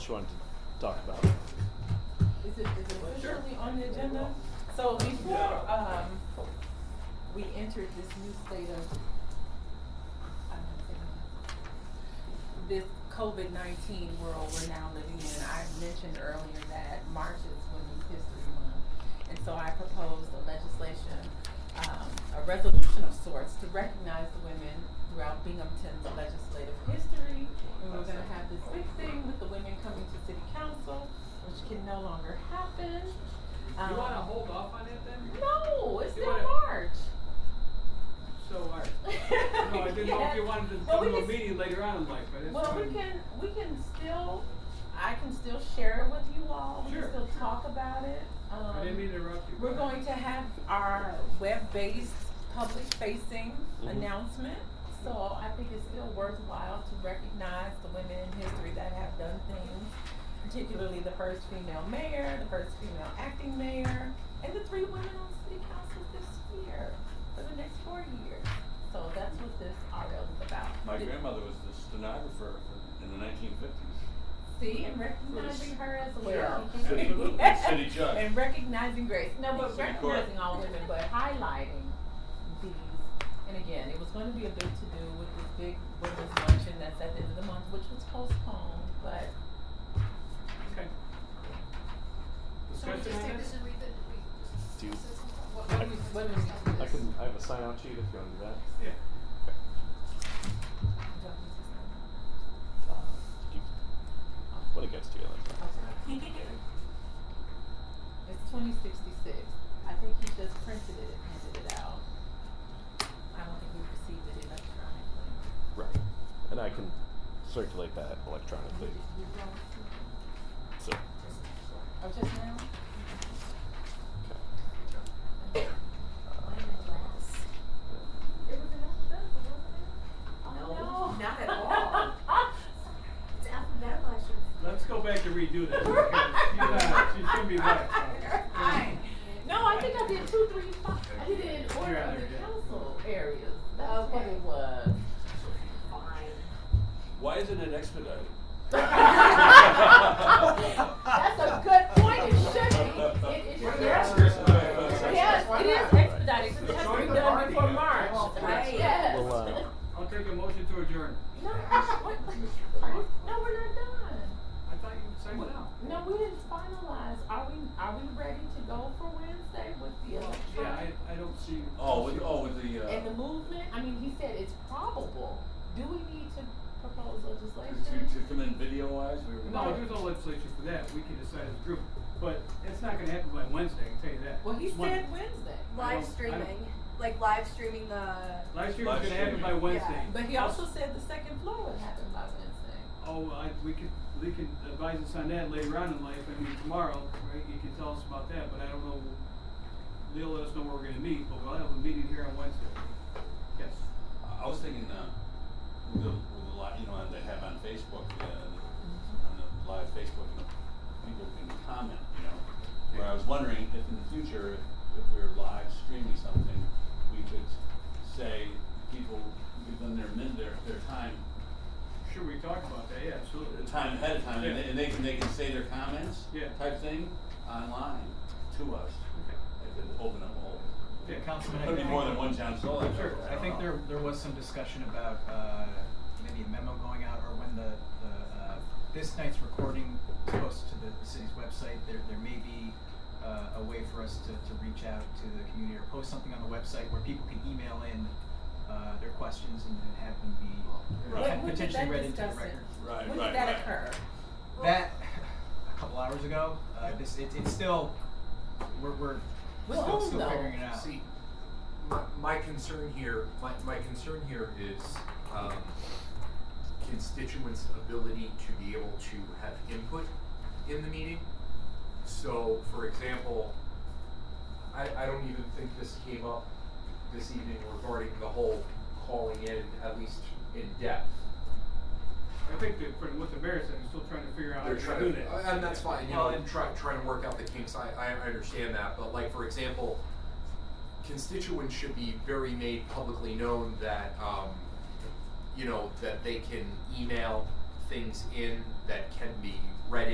Just wanted to talk about. Is it, is it officially on the agenda? So before, um, we entered this new state of, I don't know, this COVID nineteen world we're now living in, I mentioned earlier that March is Women's History Month. And so I proposed a legislation, um, a resolution of sorts to recognize the women throughout Binghamton's legislative history. And we're gonna have this big thing with the women coming to city council, which can no longer happen. You wanna Um, hold off on it then? No, it's You in wanna- March. So, alright. No, No, I didn't know if you wanted to Well, come we to a can- meeting later on in life, but it's Well, fine. we can, we can still, I can still share it with you all, we can Sure, still sure. talk about it. I didn't mean to Um, interrupt you. We're going to have our web-based, public-facing Mhm. announcement. So I think it's still worthwhile to recognize the women in history that have done things, particularly the first female mayor, the first female acting mayor, and the three women on city council this year, for the next four years. So that's what this RL is about. My Did- grandmother was the stenographer in the 1950s. See, and recognizing her as a Sure. woman. City- city judge. And recognizing grace. No, but City court. recognizing all women, but highlighting these. And again, it was going to be a big to do with this big women's luncheon that's at the end of the month, which was postponed, but Okay. So we Discussion just on take this this? and read it, we just. Do you- said something? What, what I- do we? what do we- I can. I have a sign out sheet if you want to do that. Yeah. Uh, You, when it gets to you, that's fine. It's twenty sixty-six. I think he just printed it and handed it out. I don't think we received it electronically. Right. And I can circulate that electronically. So. Oh, just now? Okay. It was an alphabetical, wasn't it? No, not at all. It's alphabetical, I should Let's go back to redo this. because she's not- She shouldn't be right. Right. No, I think I did two, three, five. I did it in order Yeah, of the there you go. council areas. That's what Okay. it was. Why isn't it expedited? That's a good point. It should be. It, it should What is be. that? Seriously. Yes, it is expedited. It has to Join be the done party. before March. Right. Yes. Well, uh, I'll take a motion to adjourn. No, what? Are you- No, we're not done. I thought you said no. No, we didn't finalize. Are we, are we ready to go for Wednesday with the Yeah, election? I, I don't see. Oh, with, oh, with the, uh. And the movement, I mean, he said it's probable. Do we need to propose To, to legislation? come in video wise, we were. No, there's no legislation for that. We can decide as a group. But it's not gonna happen by Wednesday, I can tell you that. Well, he It's Monday. said Wednesday, I don't- I Live streaming, don't- like live streaming the. Last year Live was gonna happen streaming. by Wednesday. but he also said the second floor would happen by Wednesday. Oh, I, we could, they could advise us on that later on in life, I mean, tomorrow, right, you can tell us about that, but I don't know, they'll let us know where we're gonna meet, but we'll have a meeting here on Wednesday. Yes. I was thinking, uh, with the, with the live, you know, they have on Facebook, uh, on the live Facebook, you know, people can comment, you know. Where I was wondering if in the future, if, if we're live streaming something, we could say, people, give them their min, their, their time Sure, we talked about that, yeah, absolutely. the time ahead of time, and Yeah. they, and they can, they can say their comments. Yeah. Type thing online to us. Okay. It could open up a whole. Yeah, Councilman, I Could be think- more than one uh, John Solon. Sure. I think there, there was some discussion about, uh, maybe a memo going out or when the, the, uh, this night's recording is posted to the, the city's website, there, there may be, uh, a way for us to, to reach out to the community or post something on the website where people can email in, uh, their questions and and have them be Right. When- when did potentially that read into the discuss it? record. Right, When right, did that right. occur? That, a couple hours ago, uh, this, it, it's still, we're, we're We'll still, all still know. figuring it out. See, my, my concern here, my, my concern here is um, constituents' ability to be able to have input in the meeting. So, for example, I, I don't even think this came up this evening regarding the whole calling in, at least in depth. I think that, for what the mayor said, he's still trying to figure out how They're to trying do to, that. and that's fine, you Well, know, and- and try, trying to work out the kinks, I, I, I understand that, but like, for example, constituents should be very made publicly known that, um, you know, that they can email things in that can be